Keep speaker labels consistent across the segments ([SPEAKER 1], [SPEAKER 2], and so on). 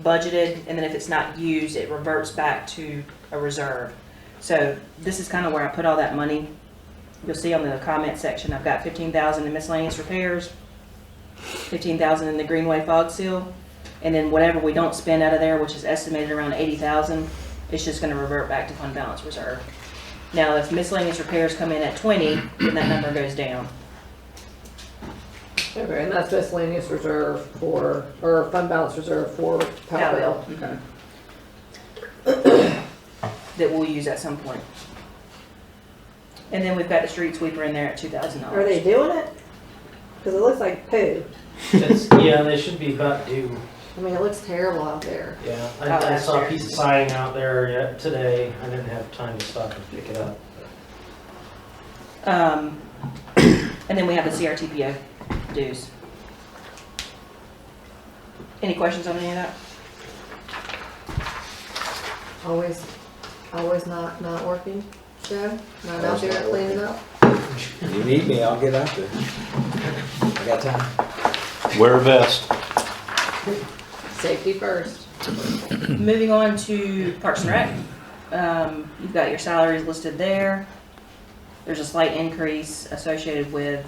[SPEAKER 1] budgeted, and then if it's not used, it reverts back to a reserve. So this is kind of where I put all that money. You'll see on the comment section, I've got fifteen thousand in miscellaneous repairs, fifteen thousand in the Greenway fog seal, and then whatever we don't spend out of there, which is estimated around eighty thousand, it's just gonna revert back to fund balance reserve. Now, if miscellaneous repairs come in at twenty, then that number goes down.
[SPEAKER 2] Okay, and that's miscellaneous reserve for, or fund balance reserve for power bill.
[SPEAKER 1] Mhm. That we'll use at some point. And then we've got the street sweeper in there at two thousand
[SPEAKER 2] Are
[SPEAKER 1] dollars.
[SPEAKER 2] they doing it? Cause it looks like poo.
[SPEAKER 3] It's, yeah, they should be about due.
[SPEAKER 2] I mean, it looks terrible out there.
[SPEAKER 3] Yeah,
[SPEAKER 2] Oh,
[SPEAKER 1] Out
[SPEAKER 3] I, I
[SPEAKER 1] last
[SPEAKER 3] saw
[SPEAKER 1] year.
[SPEAKER 3] a piece of siding out there yet today. I didn't have time to stop and pick it up.
[SPEAKER 1] Um, and then we have the CRTPO dues. Any questions on any of that?
[SPEAKER 2] Always, always not, not working, Joe? Not out there cleaning up?
[SPEAKER 4] You need me, I'll get out there. I got time.
[SPEAKER 5] Wear a vest.
[SPEAKER 2] Safety first.
[SPEAKER 1] Moving on to Parks and Rec, um, you've got your salaries listed there. There's a slight increase associated with,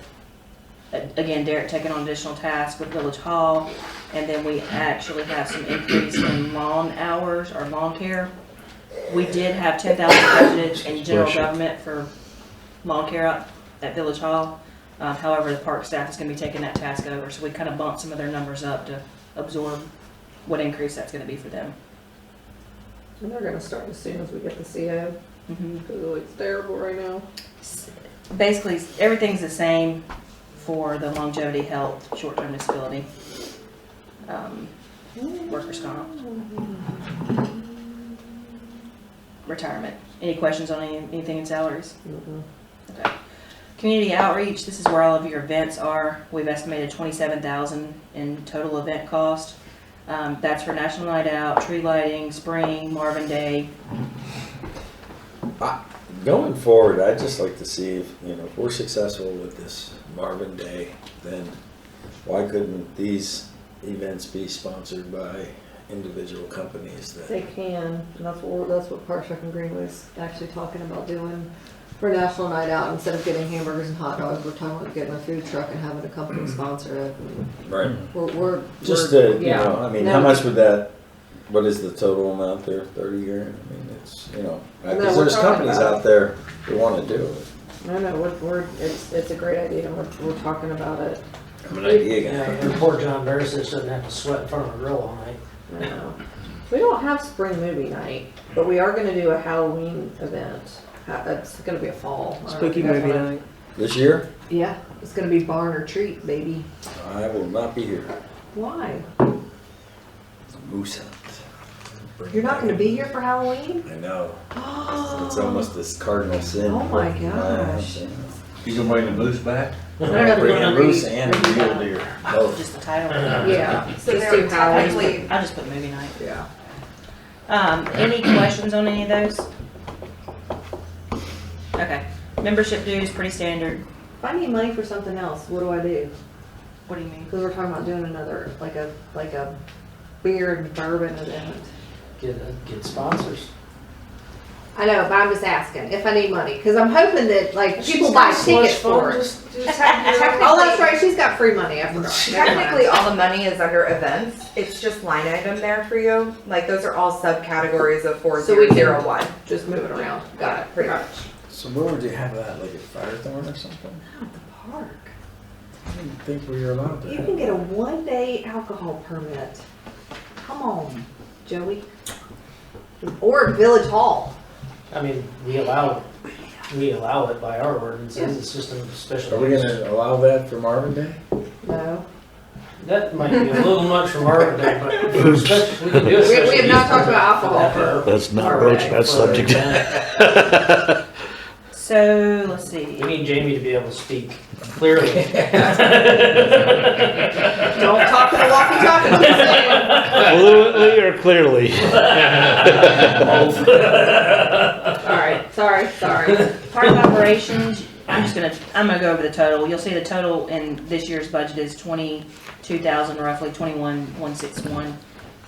[SPEAKER 1] a- again, Derek taking on additional tasks with Village Hall. And then we actually have some increase in lawn hours or lawn care. We did have ten thousand budgeted in general
[SPEAKER 5] Bless you.
[SPEAKER 1] government for lawn care up at Village Hall. Um, however, the park staff is gonna be taking that task over, so we kind of bumped some of their numbers up to absorb what increase that's gonna be for them.
[SPEAKER 2] And they're gonna start as soon as we get the CO,
[SPEAKER 1] Mhm.
[SPEAKER 2] cause it looks terrible right now.
[SPEAKER 1] Basically, everything's the same for the longevity, health, short-term disability, um, workers' comp, retirement. Any questions on any- anything in salaries?
[SPEAKER 2] Mhm.
[SPEAKER 1] Okay. Community outreach, this is where all of your events are. We've estimated twenty-seven thousand in total event cost. Um, that's for National Night Out, tree lighting, spring, Marvin Day.
[SPEAKER 4] Going forward, I'd just like to see if, you know, if we're successful with this Marvin Day, then why couldn't these events be sponsored by individual companies that?
[SPEAKER 2] They can, and that's what, that's what Park Rec and Green was actually talking about doing for National Night Out. Instead of getting hamburgers and hot dogs, we're talking about getting a food truck and having a company sponsor it.
[SPEAKER 4] Right.
[SPEAKER 2] We're, we're.
[SPEAKER 4] Just
[SPEAKER 2] we're-
[SPEAKER 4] to, you
[SPEAKER 2] yeah.
[SPEAKER 4] know, I mean, how
[SPEAKER 2] No.
[SPEAKER 4] much would that, what is the total amount there, thirty grand? I mean, it's, you know,
[SPEAKER 2] No,
[SPEAKER 4] because
[SPEAKER 2] we're
[SPEAKER 4] there's
[SPEAKER 2] talking
[SPEAKER 4] companies
[SPEAKER 2] about-
[SPEAKER 4] out there that wanna do it.
[SPEAKER 2] No, no, we're, we're, it's, it's a great idea, and we're, we're talking about it.
[SPEAKER 4] I'm an idea
[SPEAKER 3] Yeah,
[SPEAKER 4] guy.
[SPEAKER 3] and poor John Versus doesn't have to sweat in front of a grill all night.
[SPEAKER 2] I know. We don't have spring movie night, but we are gonna do a Halloween event. Ha- It's gonna be a fall. I don't know if you guys wanna-
[SPEAKER 4] This year,
[SPEAKER 2] Yeah, it's gonna be barn or treat, baby.
[SPEAKER 4] I will not be here.
[SPEAKER 2] Why?
[SPEAKER 4] Moose hunt.
[SPEAKER 2] You're not gonna be here for Halloween?
[SPEAKER 4] I know. It's
[SPEAKER 2] Oh,
[SPEAKER 4] almost this cardinal sin.
[SPEAKER 2] Oh my gosh.
[SPEAKER 6] You can bring the moose back?
[SPEAKER 2] I don't know if we're
[SPEAKER 4] Bringing
[SPEAKER 2] gonna
[SPEAKER 4] moose
[SPEAKER 2] read-
[SPEAKER 4] and
[SPEAKER 2] read
[SPEAKER 4] real
[SPEAKER 2] that.
[SPEAKER 4] deer. Both.
[SPEAKER 1] Just the title.
[SPEAKER 2] Yeah,
[SPEAKER 7] So
[SPEAKER 2] just
[SPEAKER 7] there
[SPEAKER 2] do
[SPEAKER 7] would
[SPEAKER 2] Halloween.
[SPEAKER 7] technically,
[SPEAKER 1] I'll Uh-huh. just put movie night.
[SPEAKER 2] Yeah.
[SPEAKER 1] Um, any questions on any of those? Okay, membership dues, pretty standard.
[SPEAKER 2] If I need money for something else, what do I do?
[SPEAKER 1] What do you mean?
[SPEAKER 2] Because we're talking about doing another, like a, like a beer and bourbon event.
[SPEAKER 3] Get, uh, get sponsors.
[SPEAKER 2] I know, but I'm just asking if I need money because I'm hoping that like people buy tickets for it. Oh, that's
[SPEAKER 7] technically,
[SPEAKER 2] right. She's got free money. I forgot.
[SPEAKER 7] technically all the money is under events. It's just line item there for you. Like those are all subcategories of four
[SPEAKER 2] So we
[SPEAKER 7] zero
[SPEAKER 2] can-
[SPEAKER 7] zero one.
[SPEAKER 2] just moving around. Got it.
[SPEAKER 7] Pretty much.
[SPEAKER 4] So where would you have that? Like at Firethorn or something?
[SPEAKER 2] Park.
[SPEAKER 4] I didn't think we were allowed to
[SPEAKER 2] You
[SPEAKER 4] have.
[SPEAKER 2] can get a one-day alcohol permit. Come on, Joey. Or at Village Hall.
[SPEAKER 3] I mean, we allow, we allow it by our ordinances. It's just a
[SPEAKER 4] Are
[SPEAKER 3] special
[SPEAKER 4] we
[SPEAKER 3] use.
[SPEAKER 4] gonna allow that for Marvin Day?
[SPEAKER 2] No.
[SPEAKER 3] That might be a little much from our day, but for special, we can do
[SPEAKER 2] We,
[SPEAKER 3] a special
[SPEAKER 2] we have not
[SPEAKER 3] use
[SPEAKER 2] talked about
[SPEAKER 3] for
[SPEAKER 2] alcohol.
[SPEAKER 3] that.
[SPEAKER 5] Let's not
[SPEAKER 3] All
[SPEAKER 5] broach
[SPEAKER 3] right.
[SPEAKER 5] that subject.
[SPEAKER 1] So, let's see.
[SPEAKER 3] We need Jamie to be able to speak clearly.
[SPEAKER 2] Don't talk to the walkie-talkie. just saying.
[SPEAKER 5] Fluently or clearly?
[SPEAKER 2] All right. Sorry. Sorry.
[SPEAKER 1] Park operations, I'm just gonna, I'm gonna go over the total. You'll see the total in this year's budget is twenty-two thousand, roughly twenty-one, one six one.